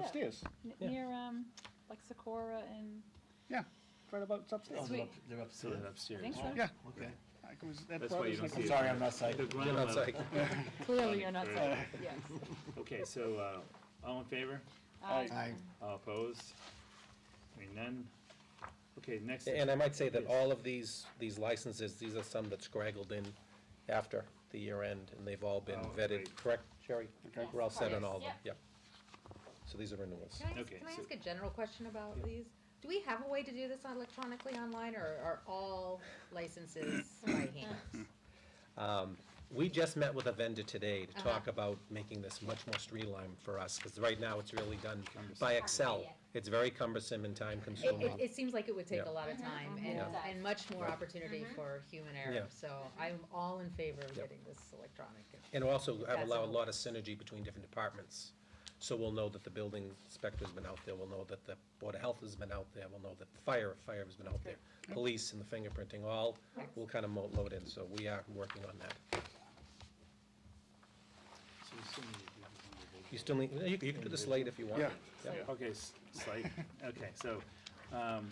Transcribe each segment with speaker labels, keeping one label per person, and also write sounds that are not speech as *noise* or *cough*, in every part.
Speaker 1: upstairs.
Speaker 2: N-
Speaker 3: Yeah.
Speaker 2: Near, um, like Socorro and,
Speaker 1: Yeah, right about it's
Speaker 4: Oh,
Speaker 1: upstairs.
Speaker 4: they're
Speaker 2: Sweet.
Speaker 4: up, they're upstairs.
Speaker 2: I
Speaker 3: upstairs.
Speaker 2: think so.
Speaker 1: Yeah.
Speaker 4: Okay.
Speaker 1: I was- that
Speaker 3: That's why
Speaker 1: bothers
Speaker 3: you don't
Speaker 1: me.
Speaker 4: I'm
Speaker 3: see it.
Speaker 4: sorry, I'm not psyched.
Speaker 3: The ground level.
Speaker 2: Clearly you're not
Speaker 3: Right.
Speaker 2: saying, *laughs* yes. Uh,
Speaker 3: Okay, so, uh, all in favor?
Speaker 2: I-
Speaker 4: Aye.
Speaker 3: All opposed? Hearing none? Okay, next.
Speaker 5: And I might say that
Speaker 3: Yes.
Speaker 5: all of these, these licenses, these are some that scraggled in after the year end, and they've all been
Speaker 3: Oh,
Speaker 5: vetted,
Speaker 3: great.
Speaker 5: correct, Sherry?
Speaker 1: Okay.
Speaker 5: We're all set on all of them,
Speaker 6: Yes,
Speaker 5: yeah. So these are renewals.
Speaker 6: Can I, ask-
Speaker 3: Okay,
Speaker 6: can I
Speaker 3: so-
Speaker 6: ask a general question about these? Do we have a way to do this electronically online, or are all licenses by hand?
Speaker 5: Um, We just met with a vendor today to
Speaker 6: Uh-huh.
Speaker 5: talk about making this much more streamlined for us, because right now it's really done by Excel. It's very cumbersome and time
Speaker 6: It, it,
Speaker 5: consuming.
Speaker 6: it seems like it would take
Speaker 5: Yeah.
Speaker 6: a lot of time and,
Speaker 7: Yeah.
Speaker 6: and much more opportunity for human error,
Speaker 5: Yeah.
Speaker 6: so I'm all in favor of
Speaker 5: Yeah.
Speaker 6: getting this electronic.
Speaker 5: And also have
Speaker 6: That's
Speaker 5: allow a
Speaker 6: all.
Speaker 5: lot of synergy between different departments. So we'll know that the building inspector's been out there, we'll know that the Board of Health has been out there, we'll know that fire, fire has been out there. Police and the fingerprinting, all will kind of load in, so we are working on that.
Speaker 3: So we still need to do this individually.
Speaker 5: You still need, you you can do this late if you want.
Speaker 1: Yeah.
Speaker 3: Yeah, Okay, s- slate, okay, so, um,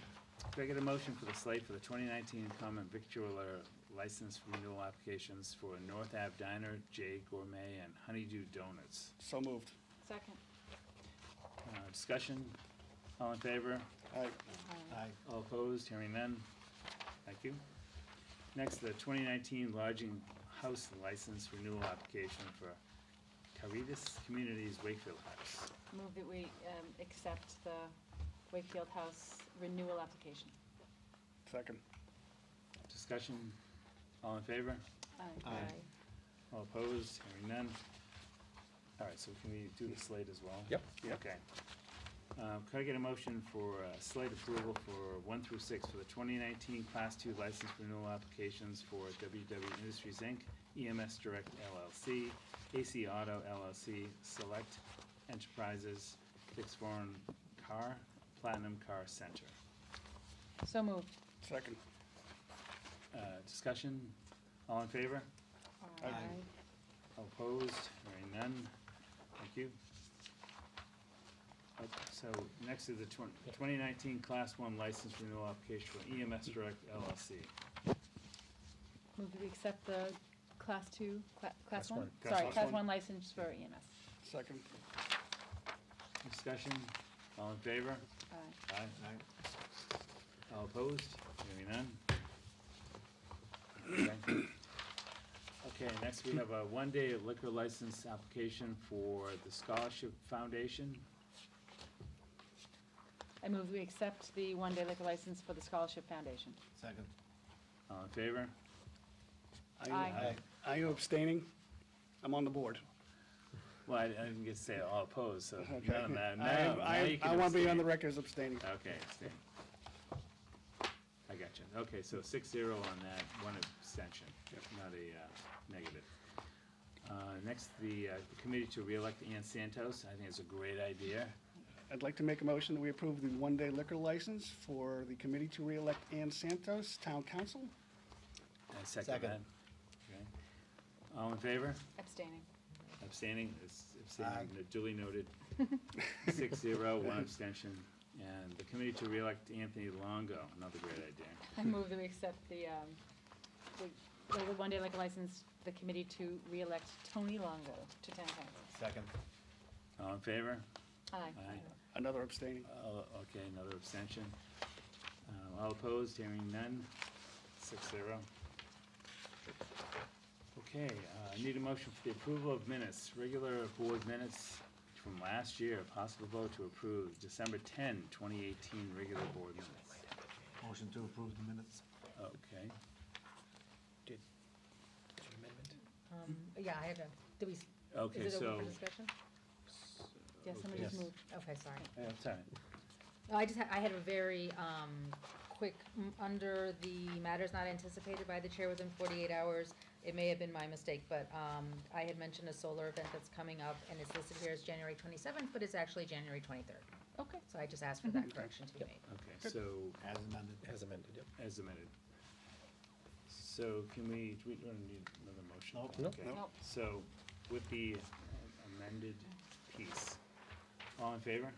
Speaker 3: could I get a motion for the slate for the twenty nineteen common victualler license renewal applications for North Ave Diner, J Gourmet, and Honeydew Donuts?
Speaker 1: So moved.
Speaker 2: Second.
Speaker 3: Uh, discussion, all in favor,
Speaker 1: Aye.
Speaker 4: Aye.
Speaker 3: all opposed, hearing none, thank you. Next, the twenty nineteen lodging house license renewal application for Caritas Communities Wakefield House.
Speaker 2: Move that we, um, accept the Wakefield House renewal application.
Speaker 1: Second.
Speaker 3: Discussion, all in favor?
Speaker 2: Aye.
Speaker 4: Aye.
Speaker 3: All opposed, hearing none. All right, so can we do the slate as well?
Speaker 5: Yep.
Speaker 1: Yep.
Speaker 3: Okay. Um, Could I get a motion for uh, slate approval for one through six for the 2019 Class Two License Renewal Applications for WW Industries, Inc., EMS Direct LLC, AC Auto LLC, Select Enterprises, Fix Foreign Car, Platinum Car Center?
Speaker 2: So moved.
Speaker 1: Second.
Speaker 3: Uh, Discussion? All in favor?
Speaker 2: Aye.
Speaker 3: All Opposed, hearing none, thank you. Uh, So next is the twen- 2019 Class 1 License Renewal Application for EMS Direct LLC.
Speaker 2: Move that we accept the class two, cla- class
Speaker 5: Class
Speaker 2: one?
Speaker 5: one.
Speaker 3: Class
Speaker 2: Sorry,
Speaker 3: one.
Speaker 2: class one license for E EMS.
Speaker 1: Second.
Speaker 3: Discussion, all in favor?
Speaker 2: Aye.
Speaker 3: Aye.
Speaker 4: Aye.
Speaker 3: All opposed, hearing none? Okay. Okay, next we have a one-day liquor license application for the Scholarship Foundation.
Speaker 2: I move we accept the one-day liquor license for the Scholarship Foundation.
Speaker 4: Second.
Speaker 3: All in favor?
Speaker 1: Are you-
Speaker 2: Aye.
Speaker 1: Are you abstaining? I'm on the board.
Speaker 3: Well, I I didn't get to say all opposed, so
Speaker 1: Okay.
Speaker 3: none of that,
Speaker 1: I am-
Speaker 3: no,
Speaker 1: I
Speaker 3: now
Speaker 1: am-
Speaker 3: you can
Speaker 1: I want to be on the
Speaker 3: abstain.
Speaker 1: record as abstaining.
Speaker 3: Okay, abstain. I got you. Okay, so six zero on that, one abstention, not a uh, negative. Uh, Next, the uh, the committee to reelect Ann Santos. I think it's a great idea.
Speaker 1: I'd like to make a motion that we approve the one-day liquor license for the committee to reelect Ann Santos, town council.
Speaker 3: I second that.
Speaker 4: Second.
Speaker 3: Okay. All in favor?
Speaker 2: Abstaining.
Speaker 3: Abstaining, It's
Speaker 4: Aye.
Speaker 3: abstaining, duly noted. Six zero, one abstention. And the committee to reelect Anthony Longo, another great idea.
Speaker 2: I move that we accept the, um, the, the one-day liquor license, for the committee to reelect Tony Longo to town council.
Speaker 4: Second.
Speaker 3: All in favor?
Speaker 2: Aye.
Speaker 3: Aye.
Speaker 1: Another abstaining.
Speaker 3: Oh, okay, another abstention. Uh, All opposed, hearing none, six zero. Okay, uh, I need a motion for the approval of minutes, regular board minutes from last year, possible vote to approve December 10, 2018, regular board minutes.
Speaker 4: Motion to approve the minutes.
Speaker 3: Okay,
Speaker 6: Um, yeah, I have a, do we, s-
Speaker 3: okay,
Speaker 6: is it
Speaker 3: so,
Speaker 6: open for discussion?
Speaker 2: Yeah, somebody just
Speaker 5: Yes.
Speaker 2: moved.
Speaker 6: Okay, sorry.
Speaker 3: yeah, sorry.
Speaker 6: No, Oh, I just, ha- I had a very, um, quick, m- under the matters not anticipated by the chair within forty-eight hours, it may have been my mistake, but, um, I had mentioned a solar event that's coming up, and it's listed here as January twenty-seventh, but it's actually January twenty-third.
Speaker 2: Okay.
Speaker 6: So I just asked for that correction to be made.
Speaker 3: okay, so
Speaker 4: As amended.
Speaker 5: As amended, yeah.
Speaker 3: as amended. So can we, do we don't need another motion?
Speaker 4: Nope.
Speaker 5: Nope.
Speaker 3: Okay.
Speaker 6: oh.
Speaker 2: Nope.
Speaker 3: So with the amended piece, all in favor?